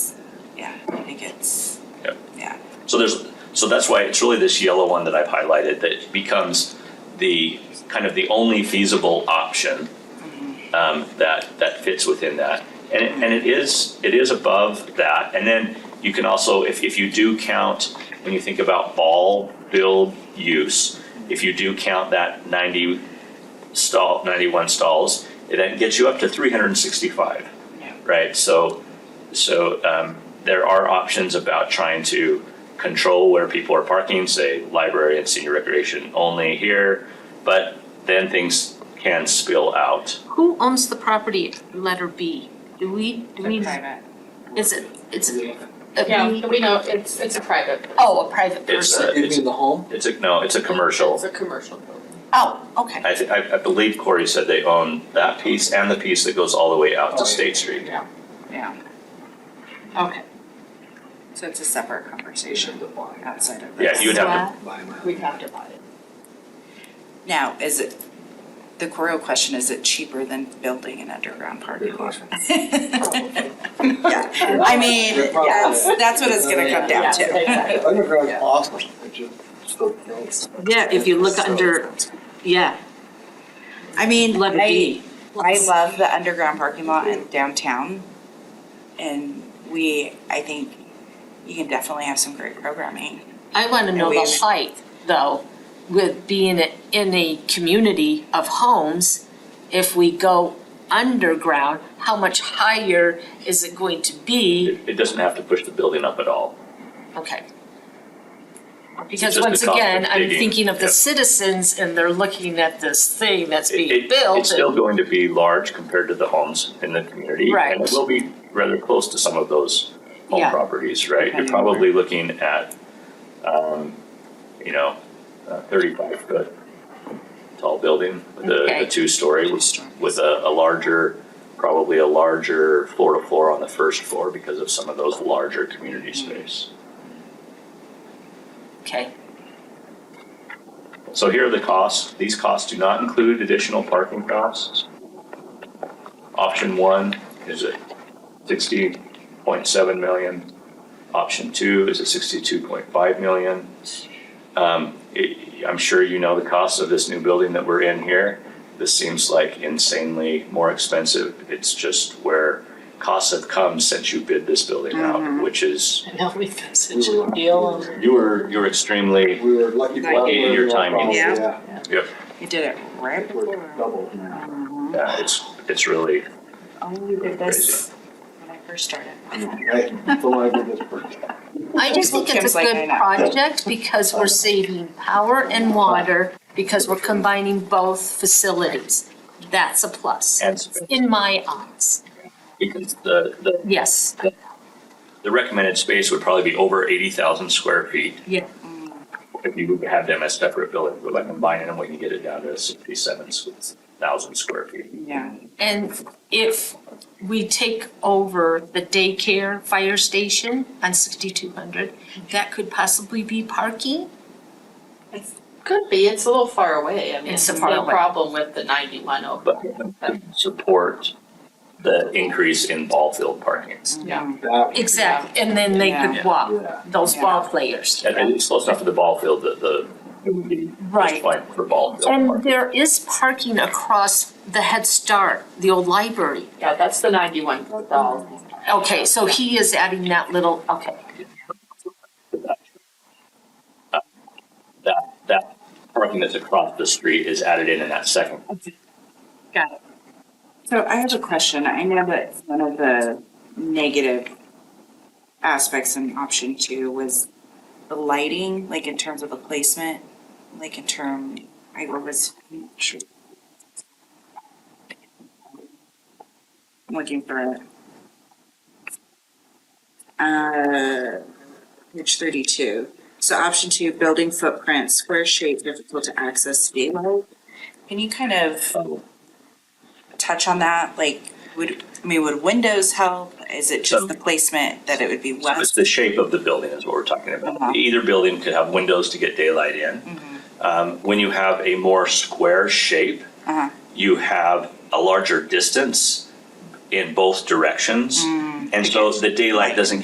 So there's, so that's why it's really this yellow one that I've highlighted that becomes the, kind of the only feasible option um, that, that fits within that. And, it- and it is, it is above that. And then you can also, if, if you do count, when you think about ball, build, use, if you do count that ninety stall, ninety-one stalls, it then gets you up to three hundred and sixty-five. Yeah. Right, so, so, um, there are options about trying to control where people are parking, say library and senior recreation only here, but then things can spill out. Who owns the property, letter B? Do we, do we, private. is it, it's a, Yeah, we know, it's, it's a private. oh, a private It's person? a, You it's, mean the home? it's a, no, it's a commercial. It's a commercial building. Oh, okay. I, thi- I, I believe Corey said they own that piece and the piece that goes all the way out Oh, to yeah. State Street. Okay. So it's a separate conversation outside of this. Yeah, you would have to, Buy my- We'd have to buy it. Now, is it, the real question, is it cheaper than building an underground parking Good lot? question. Yeah, I mean, Good problem. that's, that's what it's gonna come down Yeah, to. exactly. Underground's Yeah. awesome, it just, still kills. Yeah, if you look under, yeah, I mean, letter I, B. I love the underground parking lot in downtown. And we, I think you can definitely have some great programming. I want to know And the we- height, though, with being a- in a community of homes. If we go underground, how much higher is it going to be? it, it doesn't have to push the building up at all. Okay. Because Just the once cost of again, I'm digging, thinking of the yeah. citizens and they're looking at this thing that's It- being it- built. It's still and- going to be large compared to the homes in the community. And Right. it will be rather close to some of those home Yeah. properties, right? You're Depending on where- probably looking at, um, you know, a thirty-five foot tall building with a, Okay. a two-story Two with, stories. with a, a larger, probably a larger floor-to-floor on the first floor because of some of those larger community space. Okay, So here are the costs. These costs do not include additional parking costs. Option one is at sixty point seven million. Option two is at sixty-two point five million. Um, it, I'm sure you know the cost of this new building that we're in here. This seems like insanely more expensive. It's just where costs have come since you bid this building out, which is, I know, we've got such a deal and you were, you were extremely We were lucky. to have Like, in your one timing. problem, Yeah. You did it Yeah, right it was before. double. Yeah, uh, it's, it's really. Oh, we did this when I first started. Right, so I did this first. I just think it's Kim's a like, good "I know." project because we're saving power and water, because we're combining both facilities. That's a plus, And in my eyes, because the, the, yes, the recommended space would probably be over eighty thousand square feet. Yeah. If you would have them as separate buildings, but by combining them, we can get it down to sixty-seven thousand square feet. Yeah. And if we take over the daycare fire station on sixty-two hundred, that could possibly be parking? could be, it's a little far away. I mean, It's it's so no far away. problem with the ninety-one oh, over. But support the increase in ball field parking. Yeah. That would be- Exactly, and then they could Yeah. walk, Yeah. those ball players. And it's close enough to the ball field that the, it would be just Right. fine for ball field And parking. there is parking across the Head Start, the old library. Yeah, that's the ninety-one thousand. Okay, so he is adding that little, okay. That, that parking that's across the street is added in in that second. Got it. So I have a question. I know that one of the negative aspects in option two was the lighting, like in terms of the placement, like in term, I was looking for it. Uh, page thirty-two. So option two, building footprint, square shape, difficult to access, daylight. Can you kind of touch on that? Like, would, I mean, would windows help? Is it just the placement that it would be So It's west? the shape of the building is what we're talking Uh-huh. Mm-hmm. about. Either building could have windows to get daylight in. Um, When you have a more square shape, Uh-huh. you have a Mm. larger distance in both directions. And so the daylight doesn't